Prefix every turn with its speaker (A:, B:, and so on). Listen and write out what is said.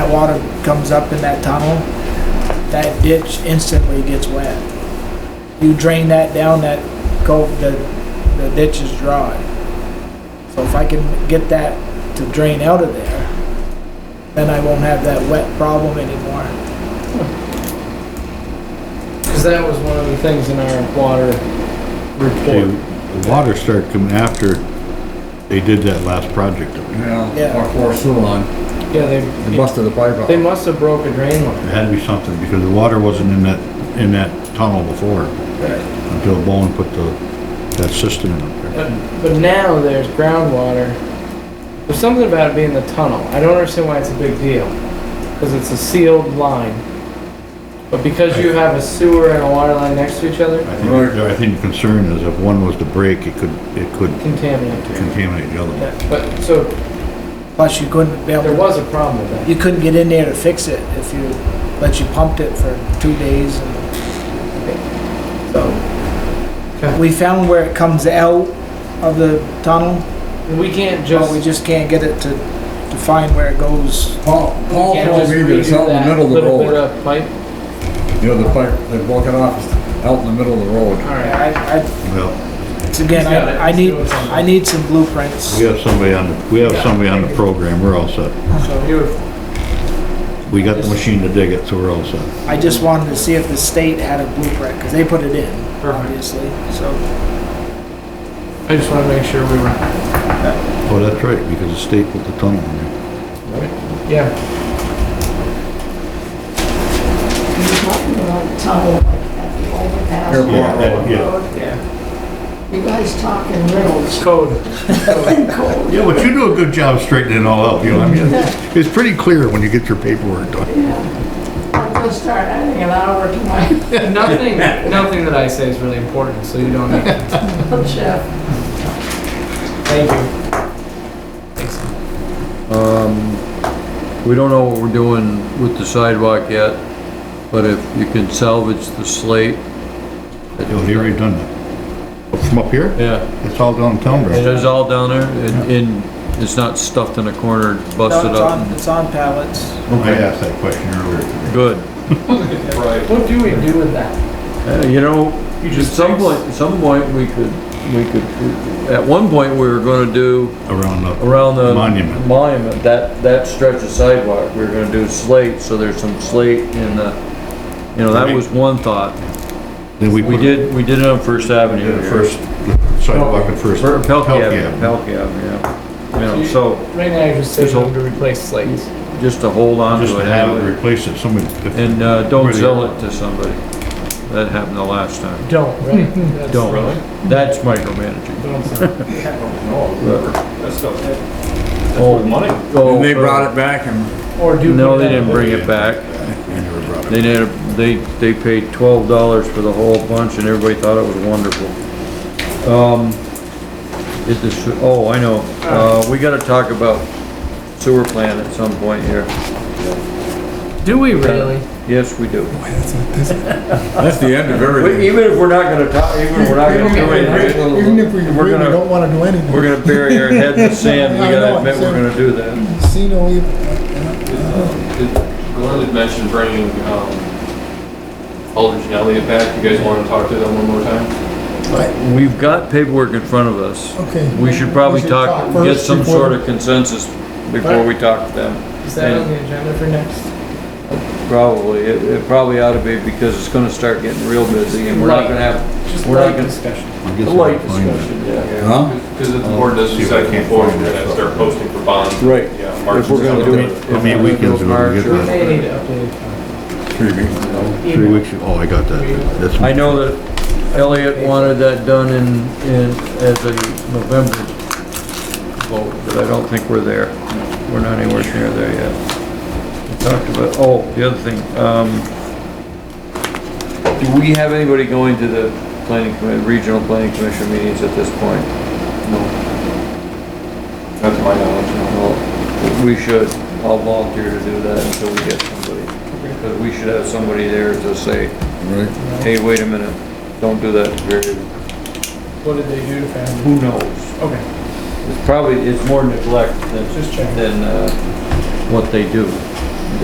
A: that water comes up in that tunnel, that ditch instantly gets wet. You drain that down, that cove, the, the ditch is dry. So if I can get that to drain out of there, then I won't have that wet problem anymore.
B: Because that was one of the things in our water
C: See,
B: report.
C: the water started coming after they did that last project. It
A: Yeah.
D: Yeah, or for a sewer line,
B: Yeah,
D: they
B: they,
D: busted the pipe
B: they
D: out.
B: must have broke a drain line.
C: had to be something because the water wasn't in that, in that tunnel before until Bowen put the, that system in up there.
B: But, but now there's groundwater. There's something about it being the tunnel. I don't understand why it's a big deal. Because it's a sealed line. But because you have a sewer and a water line next to each other,
C: I think, I think the concern is if one was to break, it could, it could
B: contaminant.
C: contaminate the other one.
B: Yeah, But, so
A: Plus you couldn't be able
B: there
A: to
B: was a problem with that.
A: you couldn't get in there to fix it if you, but you pumped it for two days and, so.
B: Okay.
A: We found where it comes out of the tunnel,
B: We can't
A: but we
B: just,
A: just can't get it to, to find where it goes.
D: Paul, Paul
B: can't
D: told
B: just
D: me that
B: redo
D: it's out in the
B: that
D: middle of the
B: little bit
D: road,
B: of pipe.
D: you know, the pipe, they broke it off, it's out in the middle of the road.
B: Alright,
A: I, I,
C: Well,
A: it's again,
B: He's got it.
A: I, I
B: He's
A: need,
B: doing something.
A: I need some blueprints.
C: we have somebody on, the we have somebody on the program, we're all set.
B: so beautiful.
C: We got the machine to dig it, so we're all set.
A: I just wanted to see if the state had a blueprint, because they put it in, obviously, so.
B: I just wanna make sure we were,
C: Oh, that's right, because the state put the tunnel in there.
B: yeah.
E: You're talking about tunnel like at the overpass.
D: Here, Yeah, that-
C: yeah.
B: Yeah.
E: You guys talking riddles.
B: Code.
C: Yeah, but you do a good job straightening it all out, you know, I mean, it's- it's pretty clear when you get your paperwork done.
E: I'm gonna start adding an hour to my
B: Nothing, nothing that I say is really important, so you don't need to.
E: shift.
B: Thank you. Thanks.
F: We don't know what we're doing with the sidewalk yet, but if you can salvage the slate.
C: Yo, they already done that. From up here?
F: Yeah,
C: It's all downtown,
F: it
C: bro.
F: is all down there and, and it's not stuffed in a corner,
A: No,
F: busted
A: it's
F: up.
A: on, it's on pallets.
C: I asked that question earlier.
F: Good.
B: What do we do with that?
F: Uh, You know, at some point, at some point, we could, we could, at one point, we were gonna do
C: Around the,
F: around the.
C: Monument.
F: Monument, that, that stretch of sidewalk, we were gonna do slate, so there's some slate in the, you know, that was one thought.
C: then we
F: We
C: put it
F: did, we did it on First Avenue.
C: in the
F: here.
C: first the sidewalk at first.
F: Or Pelkey Avenue,
C: Pelkey Avenue.
F: Pelkey Avenue, yeah. You know, so
B: Right now, you're just saying
F: There's a-
B: to replace slates.
F: just to hold on
C: Just
F: to
C: to
F: it
C: have it
F: have it,
C: replaced at somebody. if-
F: and, uh, don't
C: Really?
F: sell it to somebody. That happened the last time.
B: Don't, right? That's-
F: Don't. That's micromanaging.
B: Don't sell.
F: Oh, money.
D: And they brought it back and
B: Or do.
F: No,
B: we
F: they
B: then-
F: didn't bring it back. They did, they, they paid twelve dollars for the whole bunch and everybody thought it was wonderful. Um, it is, oh, I know, uh, we gotta talk about sewer plan at some point here.
B: Do we really?
F: Yes, we do.
D: that's the end of
F: We-
D: everything.
F: Even if we're not gonna talk, even if we're not gonna do anything.
G: Even if we
F: We're
G: agree, we
F: gonna,
G: don't wanna do anything.
F: we're gonna bury our head in the sand, we
G: I
F: gotta
G: know,
F: admit we're gonna do that.
G: Casino, we-
H: uh, Glenn had mentioned bringing um, Aldridge and Elliott back. You guys want to talk to them one more time?
F: We've got paperwork in front of us.
G: okay.
F: We should probably talk, get
G: first
F: some
G: before-
F: sort of consensus before we talk to them.
B: Is that on the agenda for next?
F: Probably, it, it probably ought to be because it's gonna start getting real busy and we're not gonna have
B: Just
F: We're not
B: light
F: gonna-
B: discussion.
C: I
F: a
C: guess I'll
F: light
C: find it.
F: discussion, yeah.
D: Huh?
H: Because if the board
C: see
H: doesn't
C: if I
H: set
C: can't
H: it forward,
C: find
H: we're gonna
C: that.
H: start posting for bonds.
F: Right.
H: Yeah, March
F: If we're gonna do it.
H: and
F: if
C: How
F: we're
C: many
F: gonna do it
C: weekends are we gonna
F: March
C: get
F: or-
C: that?
B: May need to update.
D: Three weeks ago.
C: Three weeks, oh, I got that. That's
F: I know that Elliot wanted that done in, in, as a November vote, but I don't think we're there. We're not anywhere near there yet. We talked about, oh, the other thing, um, do we have anybody going to the planning commi, regional planning commission meetings at this point? No.
H: That's my knowledge.
F: Well, we should, I'll volunteer to do that until we get somebody. Because we should have somebody there to say,
D: Right,
F: hey, wait a minute, don't do that, Gary."
B: What did they do to family?
F: who knows?
B: Okay,
F: It's probably, it's more neglect than,
B: just checking.
F: than, uh, what they do.